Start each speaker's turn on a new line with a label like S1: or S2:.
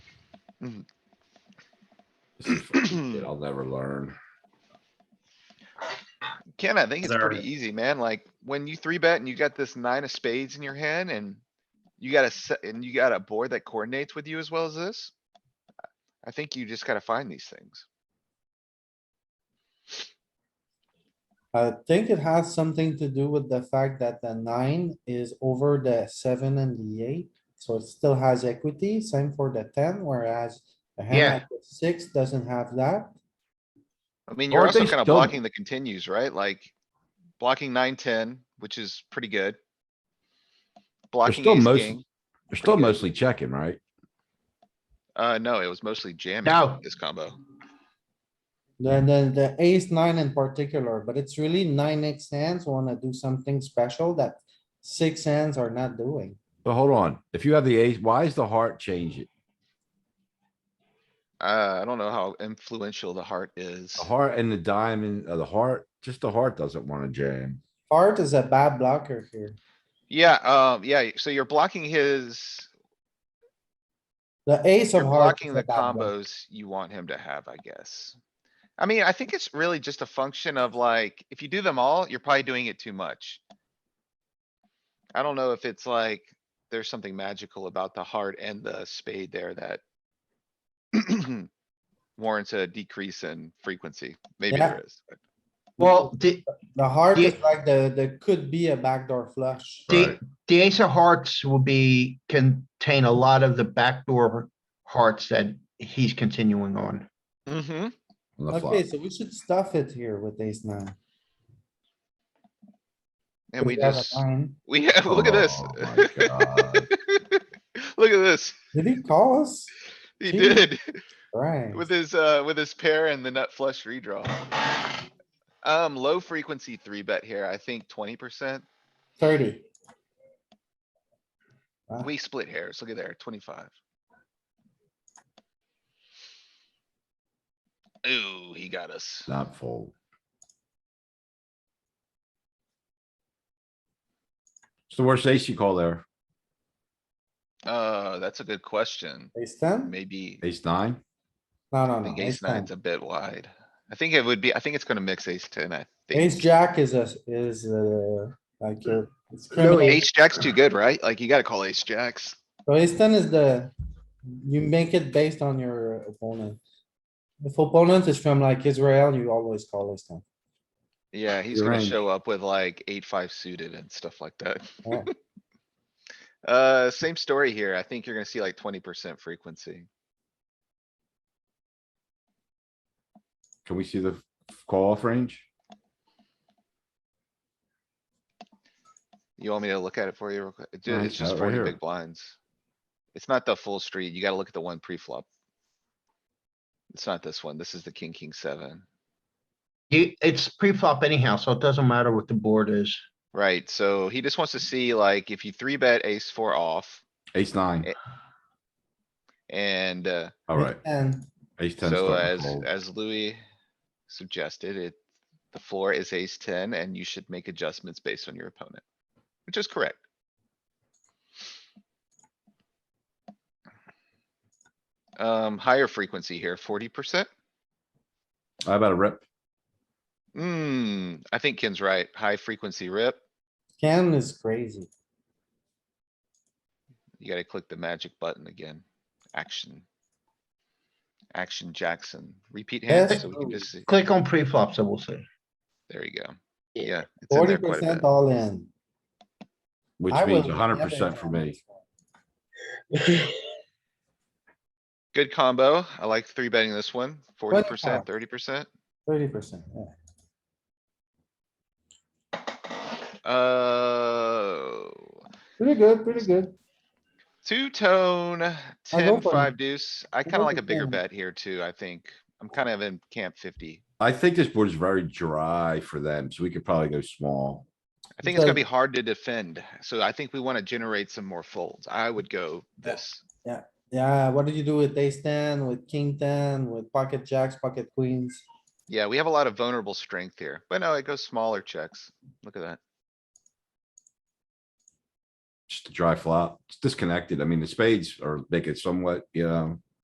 S1: Mhm.
S2: This is fucking shit I'll never learn.
S1: Ken, I think it's
S3: There-
S1: pretty easy, man. Like, when you three bet and you got this nine of spades in your hand and you got a set, and you got a board that coordinates with you as well as this. I think you just gotta find these things.
S4: I think it has something to do with the fact that the nine is over the seven and the eight, so it still has equity, same for the ten, whereas. a hand
S1: Yeah.
S4: like the Six doesn't have that,
S1: I mean, you're
S2: Aren't
S1: also
S2: they
S1: kinda
S2: still-
S1: blocking the continues, right? Like, blocking nine, ten, which is pretty good.
S2: They're
S1: Blocking
S2: still
S1: ace
S2: most,
S1: king,
S2: they're still mostly checking, right?
S1: uh, no, it was mostly jamming
S3: No.
S1: this combo.
S4: then the, the ace nine in particular, but it's really nine X hands wanna do something special that. Six hands are not doing,
S2: But hold on, if you have the ace, why is the heart changing?
S1: Uh, I don't know how influential the heart is.
S2: The heart and the diamond, uh, the heart, just the heart doesn't wanna jam.
S4: heart is a bad blocker here,
S1: Yeah, um, yeah, so you're blocking his,
S4: the ace
S1: you're
S4: of hearts.
S1: blocking
S4: is a
S1: the
S4: bad block.
S1: combos you want him to have, I guess. I mean, I think it's really just a function of like, if you do them all, you're probably doing it too much. I don't know if it's like, there's something magical about the heart and the spade there that warrants a decrease in frequency. Maybe
S4: Yeah.
S1: there is. but-
S3: Well, the,
S4: The heart is
S3: Yeah.
S4: like the, the could be a backdoor flush.
S3: the,
S2: Right.
S3: the ace of hearts will be, contain a lot of the backdoor hearts that he's continuing on.
S1: Mhm.
S2: on the flop.
S4: Okay, so we should stuff it here with ace nine.
S1: And we
S4: have a
S1: just,
S4: nine.
S1: we, have look at this.
S2: Oh my God.
S1: Look at this.
S4: Did he call us?
S1: He
S4: Jeez.
S1: did.
S4: Right.
S1: With his, uh, with his pair and the nut flush redraw. Um, low frequency three bet here, I think twenty percent.
S4: Thirty. Wow.
S1: We split hairs, look at there, twenty-five. Ooh, he got us.
S2: Not fold. It's the worst ace you call there,
S1: Uh, that's a good question.
S4: Ace ten?
S1: Maybe,
S2: ace nine?
S4: No,
S1: I
S4: no, no.
S1: think
S4: Ace
S1: ace
S4: ten.
S1: nine's a bit wide. I think it would be, I think it's gonna mix ace ten, I
S4: Ace
S1: think.
S4: jack is a, is uh like your. it's
S1: No,
S4: criminal.
S1: ace jack's too good, right? Like you gotta call ace jacks.
S4: So ace ten is the, you make it based on your opponent. If opponent is from like Israel, you always call ace ten.
S1: Yeah, he's
S2: Your
S1: gonna
S2: range.
S1: show up with like eight, five suited and stuff like that.
S4: Yeah.
S1: Uh, same story here. I think you're gonna see like twenty percent frequency.
S2: Can we see the f- call off range?
S1: You want me to look at it for you? real quick? It ju-
S2: No,
S1: It's
S2: it's
S1: just
S2: out right
S1: forty
S2: here.
S1: big blinds. It's not the full street. You gotta look at the one pre-flop. It's not this one. This is the king, king seven,
S3: You, it's pre-flop anyhow, so it doesn't matter what the board is.
S1: right? So he just wants to see like if you three bet ace four off
S2: Ace nine,
S1: Eh. and, uh,
S2: alright,
S4: And
S2: ace ten.
S1: So
S2: starting
S1: as,
S2: to fold.
S1: as Louis suggested, it, the floor is ace ten and you should make adjustments based on your opponent, which is correct. Um, higher frequency here, forty percent.
S2: How about a rip?
S1: Hmm, I think Ken's right. High frequency rip.
S4: Ken is crazy.
S1: You gotta click the magic button again. Action. Action Jackson. Repeat hand so we can just see.
S3: Click on pre-flops, I will say.
S1: There you go. Yeah. it's in
S4: Forty
S1: there quite a
S4: percent
S1: bit.
S4: all in.
S2: Which
S4: I
S2: means
S4: will
S2: hundred
S4: never
S2: percent for
S4: call
S2: me.
S4: this
S1: Good combo. I like three betting this one. Forty percent,
S4: call.
S1: thirty percent.
S4: Thirty percent, yeah.
S1: Uh,
S4: Pretty good, pretty good.
S1: two tone,
S4: I go
S1: ten,
S4: for it.
S1: five deuce. I kinda
S4: go
S1: like
S4: for
S1: a bigger
S4: 10.
S1: bet here too, I think. I'm kind of in camp fifty.
S2: I think this board is very dry for them, so we could probably go small.
S1: I think it's gonna
S4: Because-
S1: be hard to defend, so I think we wanna generate some more folds. I would go
S4: Yeah.
S1: this.
S4: Yeah, what did you do with ace ten, with king ten, with pocket jacks, pocket queens?
S1: Yeah, we have a lot of vulnerable strength here, but no, it goes smaller checks. Look at that.
S2: Just a dry flop, it's disconnected. I mean, the spades are making somewhat, you know,